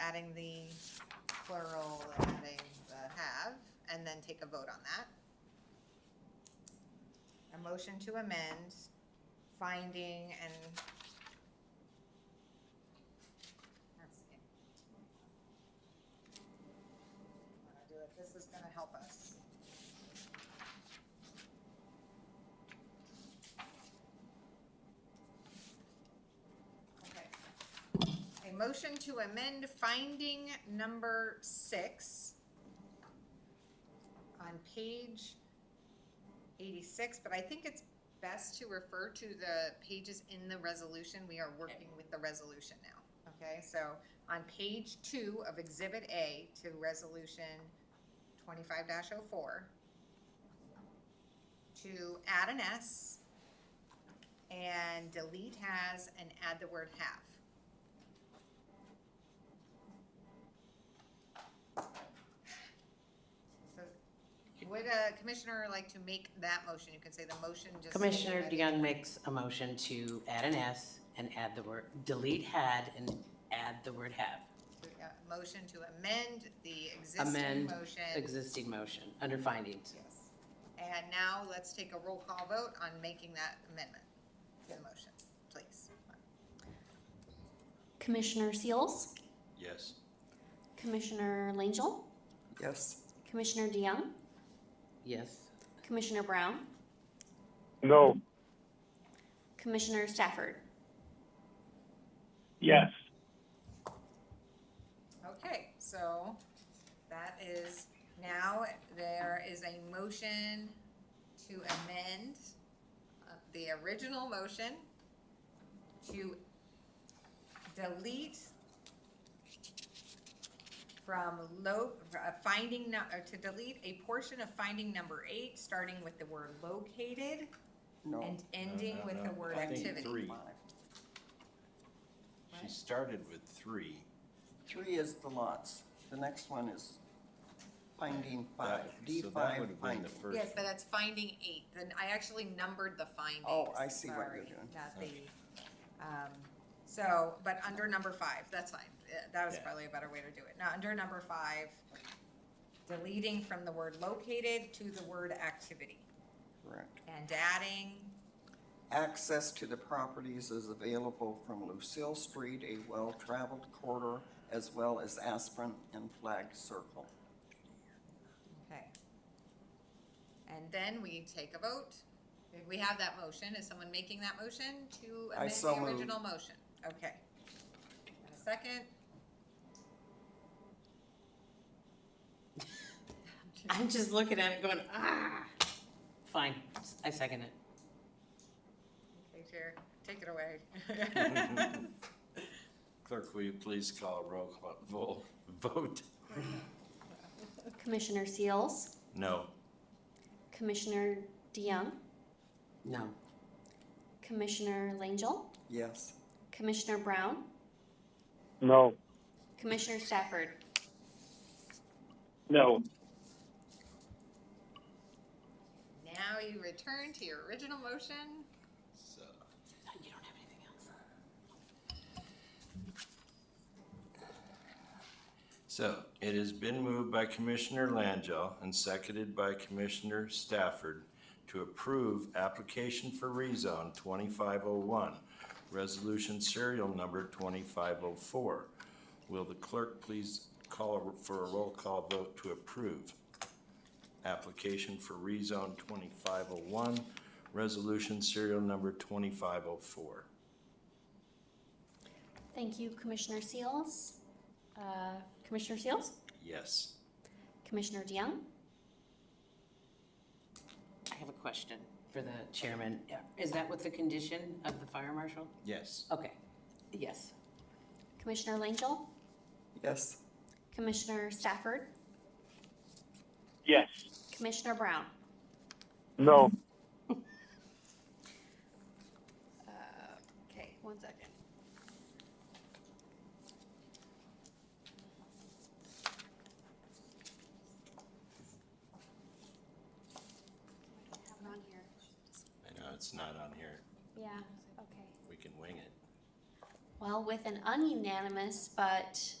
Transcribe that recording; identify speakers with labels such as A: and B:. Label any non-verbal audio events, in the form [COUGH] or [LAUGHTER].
A: adding the plural, adding the have, and then take a vote on that. A motion to amend finding and. That's it. Wanna do it, this is gonna help us. Okay. A motion to amend finding number six on page eighty-six, but I think it's best to refer to the pages in the resolution. We are working with the resolution now, okay? So on page two of Exhibit A to Resolution twenty-five 4 to add an S and delete has and add the word have. So would a commissioner like to make that motion? You can say the motion just.
B: Commissioner DeYoung makes a motion to add an S and add the word, delete had and add the word have.
A: Uh, Motion to amend the existing
B: Amend
A: motion.
B: existing motion under findings.
A: Yes. And now let's take a roll call vote on making that amendment to the motion, please.
C: Commissioner Seals,
D: Yes.
C: Commissioner Langell,
E: Yes.
C: Commissioner DeYoung,
B: Yes,
C: Commissioner Brown,
F: No.
C: Commissioner Stafford.
F: Yes.
A: Okay, so that is, now there is a motion to amend uh, the original motion to delete from low, uh, finding, nu- or to delete a portion of finding number eight, starting with the word located
E: No.
A: and ending with the word
D: I think
A: activity.
D: three.
E: Five.
D: She started with three.
E: Three is the lots. The next one is finding
D: That-
E: five, D
D: So that would have
E: five
D: been the
E: finding.
D: first.
A: Yes, but that's finding eight, then I actually numbered the findings.
E: Oh, I see what you're
A: Sorry,
E: doing.
A: Not the, um, so, but under number five, that's fine, Uh, that was
D: Yeah.
A: probably a better way to do it, now, under number five, deleting from the word located to the word activity,
E: Correct.
A: and adding,
E: Access to the properties is available from Lucille Street, a well-traveled corridor, as well as Aspirin and Flag Circle.
A: okay. And then we take a vote, we have that motion, is someone making that motion to
E: I
A: amend
E: so
A: the
E: move.
A: original motion? Okay. And a second?
B: I'm just looking at it going, ah. Fine, I second it.
A: Okay, Chair, take it away. [LAUGHS]
D: Clerk, will you please call a roll call vo- vote?
C: Commissioner Seals,
D: No.
C: Commissioner DeYoung,
B: No,
C: Commissioner Langell,
E: Yes.
C: Commissioner Brown,
F: No.
C: Commissioner Stafford.
F: No.
A: Now you return to your original motion.
D: So,
B: you don't have anything else.
D: so it has been moved by Commissioner Langell and seconded by Commissioner Stafford to approve application for rezone twenty-five oh one, resolution serial number twenty-five oh four. Will the clerk please call a- for a roll call vote to approve? application for rezone 2501, resolution serial number 2504.
C: Thank you, Commissioner Seals. Uh, Commissioner Seals,
D: Yes.
C: Commissioner DeYoung,
B: I have a question for the chairman. Is that with the condition of the fire marshal?
D: Yes.
B: Okay, yes.
C: Commissioner Langell,
E: Yes.
C: Commissioner Stafford,
F: Yes.
C: Commissioner Brown.
F: No.
C: Okay, one second. I don't have it on here.
D: I know, it's not on here.
C: Yeah, okay.
D: We can wing it.
C: Well, with an ununanimous, but